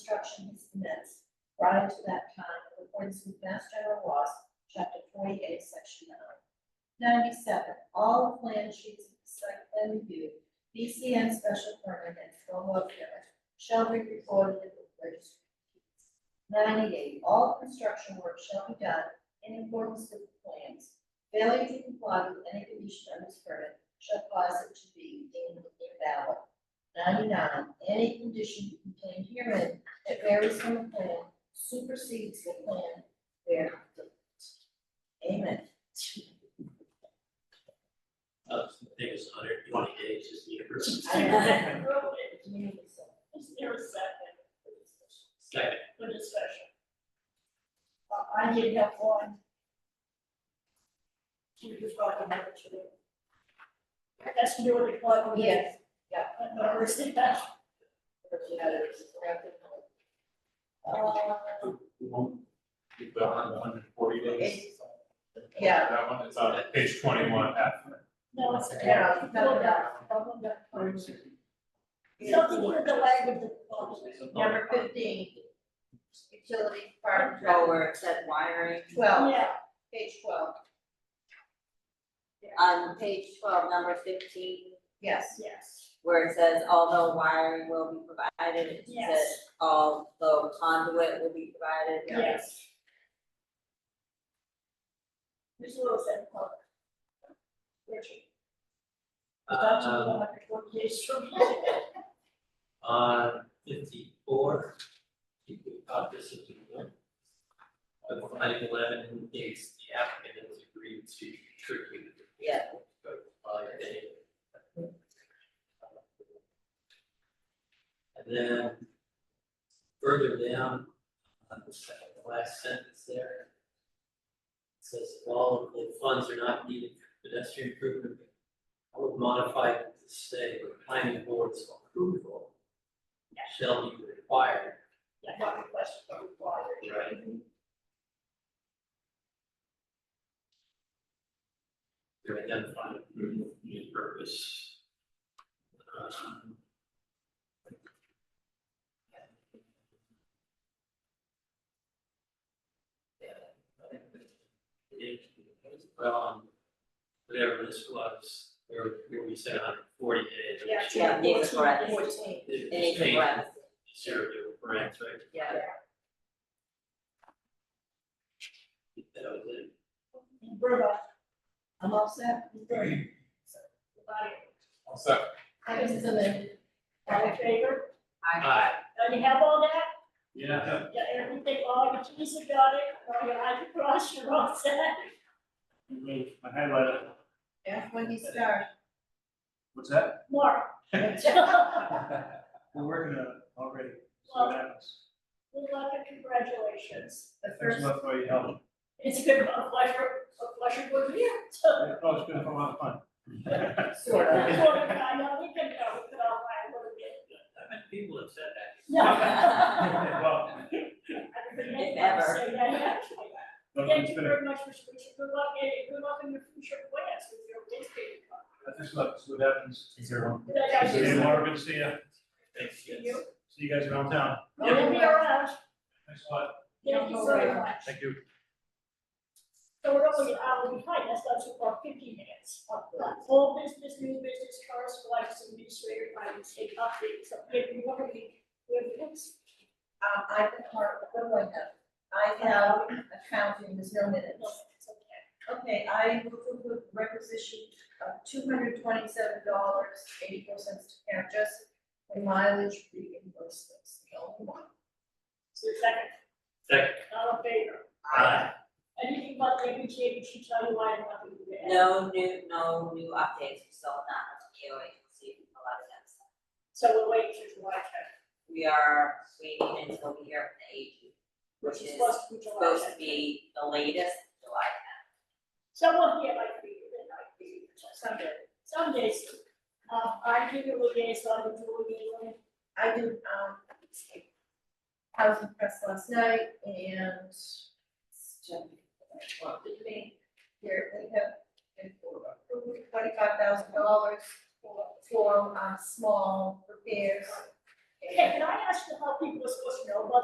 construction is commenced prior to that time in accordance with Mass General Laws, Chapter forty-eight, Section nine. Ninety-seven, all plan sheets of the site plan review, BCN special permit and stormwater permit shall be recorded in the registry. of deeds. Ninety-eight, all construction work shall be done in accordance with the plans. Failure to comply with any condition on this permit shall cause it to be deemed invalid. Ninety-nine, any condition contained herein that varies from the plan supersedes the plan there. Amen. Uh, the thing is hundred twenty days is the universal. I Is there a second for discussion? Second, For discussion, I I did have one. you just brought them up to it. That's to do with the plug. Oh, Yes, yeah. But no, we're still back. Uh, We won't keep that on the hundred and forty days. Yeah. That one, it's on page twenty-one F. No, it's. Yeah. Well done, well done. Something with the language of the policy. Number fifteen. Utility part department, control where it said wiring. twelve, Yeah, page twelve, On page twelve, number fifteen, yes. yes, where it says although wiring will be provided, it says Yes. although conduit will be provided. yes. Ms. Lewis and Clark. Richard. That's to um, the hundred twenty days from. on Uh, fifty-four, you Uh, could talk this as one. The finding eleven days, the applicant has agreed to contribute. Yeah. By day. And then further down, on the second to last sentence there. it Says if all of the funds are not needed for pedestrian improvement. I would modify it to say the planning board's approval shall be required. Yeah, not requested, but required. Right. To identify approval and purpose. Um, It, well, um, whatever this was, where, where we said hundred forty days. Yeah. Yeah, these are correct. Fourteen. It It was is changed, correct, zero to brands, right? yeah. That was it. Bruno, I'm all set. Bruno. Everybody, All set. I was submitted. all in favor? Aye. Now you have all that? Yeah. You got everything, all your keys are got it, all your eyes are crossed, you're all set? My highlight, That's when you start. what's that? Mark. Well, We're working on it already, so it happens. good luck and congratulations. The first, much for your help. It's been a pleasure, a pleasure with you. So, Oh, it's been a lot of fun. sort of. that's what I know, we can go, we can all find what it is. How many people have said that? No. Well, I've been making that Never. mistake, I actually. Thank you very much, Mr. Richard, good luck, and good luck in your future plans with your landscaping. I just love, what happens. Good luck, guys. See you, Laura, good to see you. Thanks, Thank yes. you. See you guys around town. You'll be around, Thanks a lot. thank you very much. Thank you. So we're only an hour behind, that's not too far, fifty minutes. Full business, new business, correspondence, administrator, finance, state updates, so maybe one of the, we have next. Um, I can mark, what do I have? I have accounting, there's no No, minutes. it's okay. Okay, I move to approve requisition of two hundred twenty-seven dollars, eighty-four cents to Karen Jessup for mileage reimbursements, the only one. So second, Second. all in favor? Aye. Anything but the MBTA, we should tell you why I'm not doing that. No new, no new updates, we still have not, you know, you can see a lot of them. So we'll wait till July tenth, We are waiting until we hear from the AG, which which is is supposed to be July supposed to tenth. be the latest July Someone here might be, they might be, Sunday. some days, uh, I give you a liaison with Julie, and I did, um, housing press last night and what did me, here, they have twenty-five thousand dollars for, for, um, small uh, repairs Hey, can I ask you how people are supposed to know about